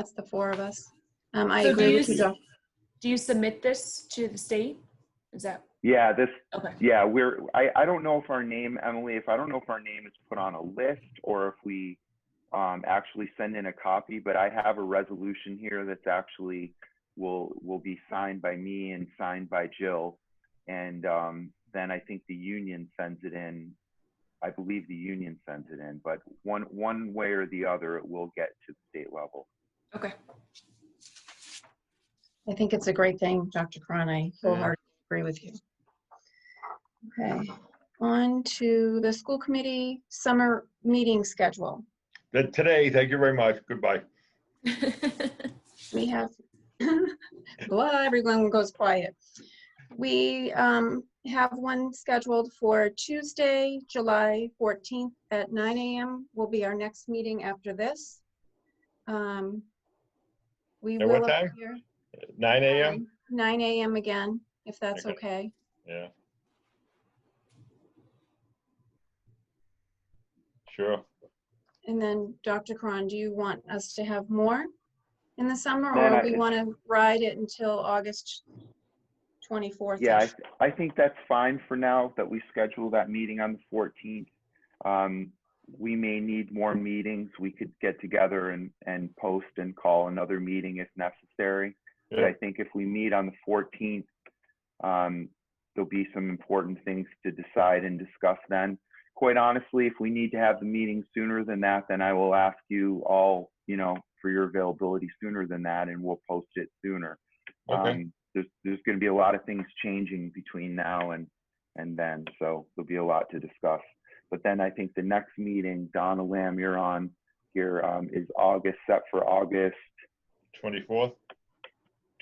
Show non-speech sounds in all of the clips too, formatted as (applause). That's the four of us. Um, I So do agree you with you, s- Josh. Do you submit this to the state? Is that, Yeah, this, okay, yeah, we're, I, I don't know if our name, Emily, if I don't know if our name is put on a list or if we um, actually send in a copy, but I have a resolution here that's actually will, will be signed by me and signed by Jill. And um, then I think the union sends it in. I believe the union sends it in, but one, one way or the other, it will get to the state level. okay. (laughs) I think it's a great thing, Dr. Cron. I wholeheartedly agree with you. Okay, on to the school committee summer meeting schedule. Then today, thank you very much. Goodbye. We have, (laughs) well, everyone goes quiet. We um, have one scheduled for Tuesday, July 14th at 9 AM will be our next meeting after this. Um, We At what will time? appear- Nine AM? um, 9 AM again, if that's Okay. okay. Yeah. Sure. And then, Dr. Cron, do you want us to have more in the summer, No, or no, we it- want to ride it until August 24th? Yeah, I, th- I think that's fine for now, that we schedule that meeting on the fourteenth. Um, we may need more meetings, we could get together and, and post and call another meeting if necessary. But I Yeah. think if we meet on the fourteenth, um, there'll be some important things to decide and discuss then. Quite honestly, if we need to have the meeting sooner than that, then I will ask you all, you know, for your availability sooner than that, and we'll post it sooner. Okay. Um, There's, there's going to be a lot of things changing between now and, and then, so there'll be a lot to discuss. But then I think the next meeting, Donna Lamb, you're on here, um, is August, set for August Twenty-fourth.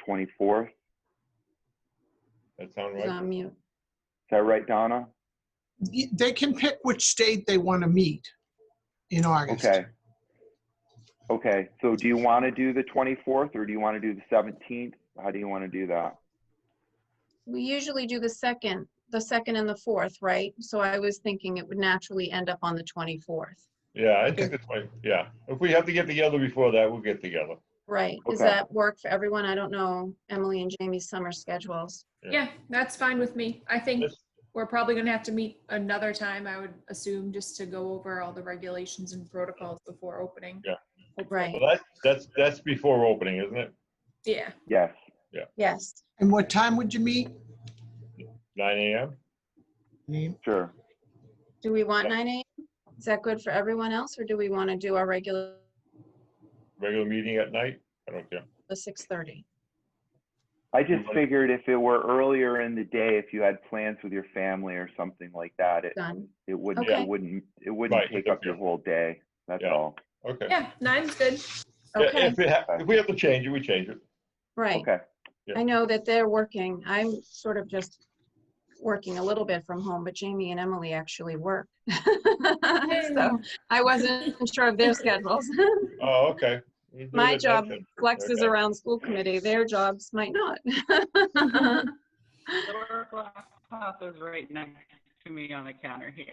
24th. Is That sound He's right? on mute. that right, Donna? y- they can pick which state they want to meet in August. Okay. Okay, so do you want to do the 24th or do you want to do the 17th? How do you want to do that? We usually do the second, the second and the fourth, right? So I was thinking it would naturally end up on the 24th, Yeah, I think that's right. Yeah. If we have to get together before that, we'll get together. right? Does Okay. that work for everyone? I don't know Emily and Jamie's summer schedules. Yeah, that's fine with me. I think Let's- we're probably gonna have to meet another time, I would assume, just to go over all the regulations and protocols before opening. Yeah. Right, Well, that's, that's, that's before opening, isn't it? Yeah, Yes, yes. And what time would you meet? Nine AM? sure. Do we want 9 AM? Is that good for everyone else, or do we want to do our regular Regular meeting at night? I don't care. the 6:30? I just Mhm. figured if it were earlier in the day, if you had plans with your family or something like that, it, Done. it wouldn't, Okay. it wouldn't, it wouldn't Right, take up your okay. whole day. That's Yeah. all. Okay. yeah, nine's (laughs) good. Yeah, Okay, If we have, if we have to change it, we change it. right. Okay, Yeah. I know that they're working. I'm sort of just working a little bit from home, but Jamie and Emily actually work. (laughs) So I wasn't sure of their (laughs) schedules. Oh, okay. We'll do (laughs) My it job. next time. Flex is Okay. around school committee. Their jobs might not. (laughs) Uh-huh. Historical House is right next to me on the counter here.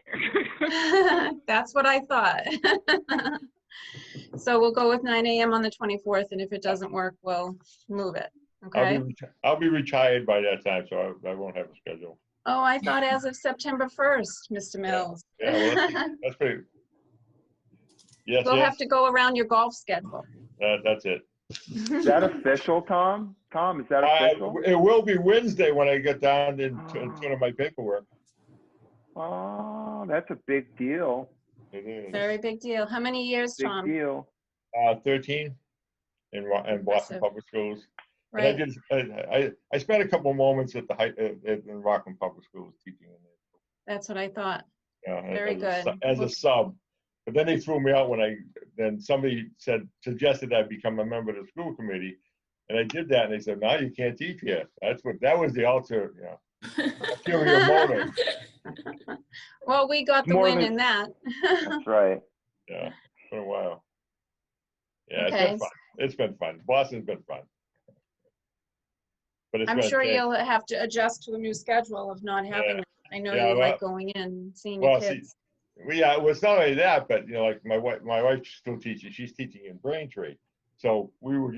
That's what I thought. (laughs) So we'll go with 9 AM on the 24th, and if it doesn't work, we'll move it. I'll be, Okay? reti- I'll be retired by that time, so I, I won't have a schedule. Oh, I thought as of September 1st, Mr. Mills. Yeah, well, that's- that's pretty. Yes, We'll have yes, to go around your golf schedule. that, that's it. is that official, Tom? Tom, is that I- official? It will be Wednesday when I get down and t- Ah. and turn in my paperwork. Oh, that's a big deal, It (laughs) is. Very big deal. How many years, big Tom? deal. Uh, thirteen in, Wa- in Boston Impressive. Public Schools. And I Right, did, I, I, I spent a couple moments at the, high- at- at- in Rockland Public Schools teaching. in there, that's what I thought. you know, Very as a su- good. As a sub. But then they threw me out when I, then somebody said, suggested I become a member of the school committee. And I did that and they said, now you can't teach here. That's what, that was the alter, you know, (laughs) ulterior motive. Well, we got the More win than- in that. (laughs) That's right. Yeah, for a while. Yeah, it's Okay. been fun. It's been fun. Boston's been fun. But it's I'm been a sure change. you'll have to adjust to a new schedule of not having, Yeah. it. I know Yeah, you like well- going in, seeing your Well, see, kids. we, uh, well, it's not only that, but you know, like my wife, my wife's still teaching, she's teaching in Braintree. So we were